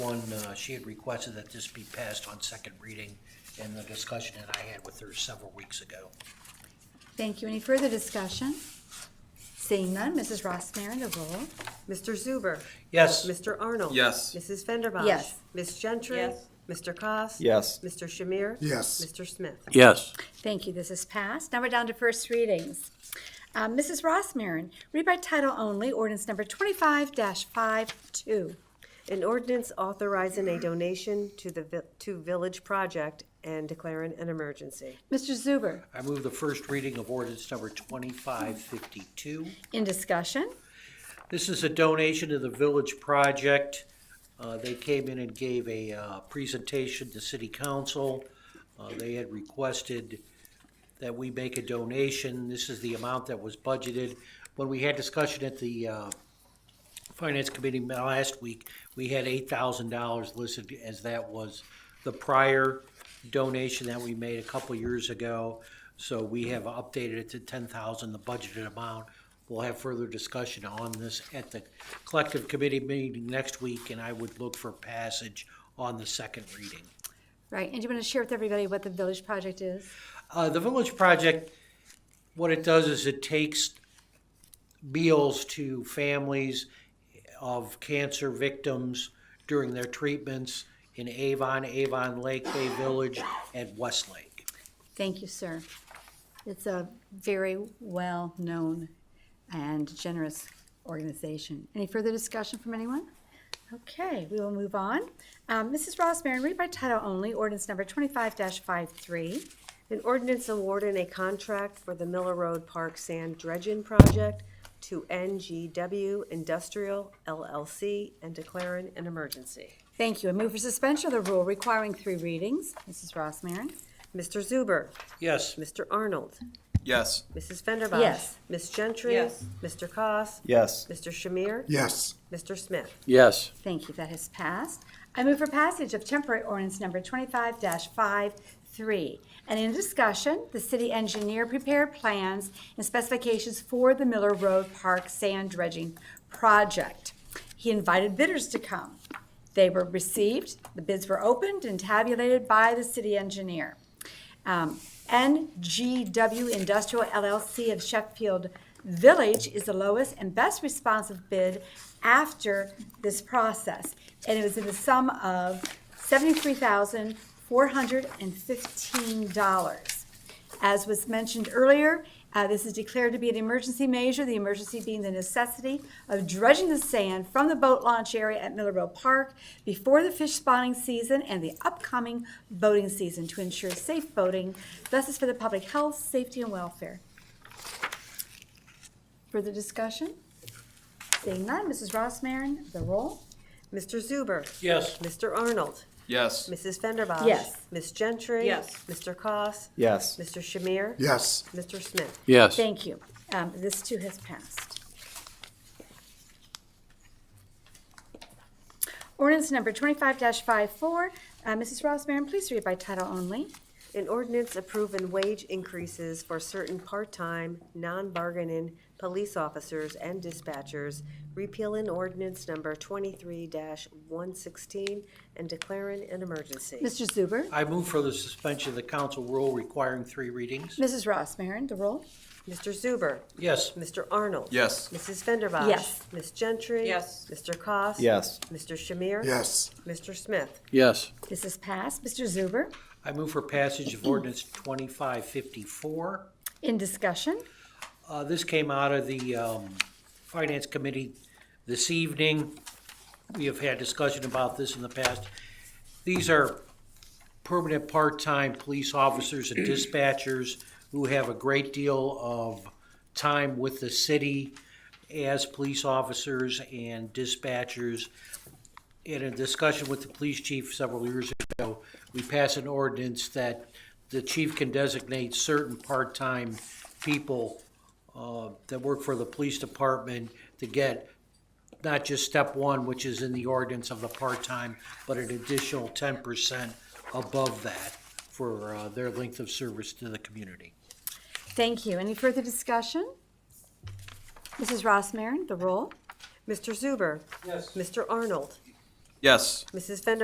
One, uh, she had requested that this be passed on second reading in the discussion that I had with her several weeks ago. Thank you. Any further discussion? Seeing none, Mrs. Ross Marin, the roll. Mr. Zuber. Yes, Mr. Arnold. Yes. Mrs. Fenderbosh. Yes. Ms. Gentry. Yes. Mr. Koss. Yes. Mr. Shamir. Yes. Mr. Smith. yes, Thank you. This is passed. Now we're down to first readings. Uh, Mrs. Ross Marin, read by title only, ordinance number twenty-five 52 An ordinance authorizing a donation to the, vi- to Village Project and declaring an emergency. Mr. Zuber, I move the first reading of ordinance number 2552. in discussion? This is a donation to the Village Project. Uh, They came in and gave a uh, presentation to City Council. Uh, They had requested that we make a donation. This is the amount that was budgeted. When we had discussion at the uh, Finance Committee last week, we had $8,000 listed as that was the prior donation that we made a couple years ago. So we have updated it to 10,000, the budgeted amount. We'll have further discussion on this at the collective committee meeting next week, and I would look for passage on the second reading. Right, and do you want to share with everybody what the Village Project is? Uh, the Village Project, what it does is it takes meals to families of cancer victims during their treatments in Avon, Avon Lake Bay Village, and Westlake. Thank you, sir. It's a very well-known and generous organization. Any further discussion from anyone? Okay, we will move on. Um, Mrs. Ross Marin, read by title only, ordinance number twenty-five 53 An ordinance awarding a contract for the Miller Road Park Sand Dredging Project to NGW Industrial LLC and declaring an emergency. Thank you. A move for suspension of the rule requiring three readings. Mrs. Ross Marin? Mr. Zuber. Yes, Mr. Arnold. Yes. Mrs. Fenderbosh. Yes. Ms. Gentry. Yes. Mr. Koss. Yes. Mr. Shamir. Yes. Mr. Smith. yes, Thank you. That has passed. I move for passage of temporary ordinance number twenty-five 53 And in discussion, the city engineer prepared plans and specifications for the Miller Road Park sand dredging project. He invited bidders to come. They were received, the bids were opened and tabulated by the city engineer. Um, NGW Industrial LLC of Sheffield Village is the lowest and best responsive bid after this process. And it was in the sum of $73,415. As was mentioned earlier, uh, this is declared to be an emergency measure, the emergency being the necessity of dredging the sand from the boat launch area at Miller Road Park before the fish spawning season and the upcoming boating season to ensure safe boating. Thus is for the public health, safety, and welfare. Further discussion? Seeing none, Mrs. Ross Marin, the roll. Mr. Zuber. yes, Mr. Arnold. Yes. Mrs. Fenderbosh. Yes. Ms. Gentry. Yes. Mr. Koss. Yes. Mr. Shamir. Yes. Mr. Smith. yes, Thank you. Um, This too has passed. Ordinance number twenty-five 54 Uh, Mrs. Ross Marin, please read by title only. An ordinance approving wage increases for certain part-time, non-bargaining police officers and dispatchers, repealing ordinance number twenty-three one sixteen, and declaring an emergency. Mr. Zuber? I move for the suspension of the council rule requiring three readings. Mrs. Ross Marin, the roll? Mr. Zuber. Yes, Mr. Arnold. Yes. Mrs. Fenderbosh. Yes. Ms. Gentry. Yes. Mr. Koss. Yes. Mr. Shamir. Yes. Mr. Smith. yes, This is passed. Mr. Zuber, I move for passage of ordinance 2554. in discussion? Uh, This came out of the um, Finance Committee this evening. We have had discussion about this in the past. These are permanent part-time police officers and dispatchers who have a great deal of time with the city as police officers and dispatchers. In a discussion with the police chief several years ago, we passed an ordinance that the chief can designate certain part-time people uh, that work for the police department to get not just step one, which is in the ordinance of the part-time, but an additional ten percent above that for uh, their length of service to the community. Thank you. Any further discussion? Mrs. Ross Marin, the roll? Mr. Zuber. Yes. Mr. Arnold. Yes. Mrs. Fender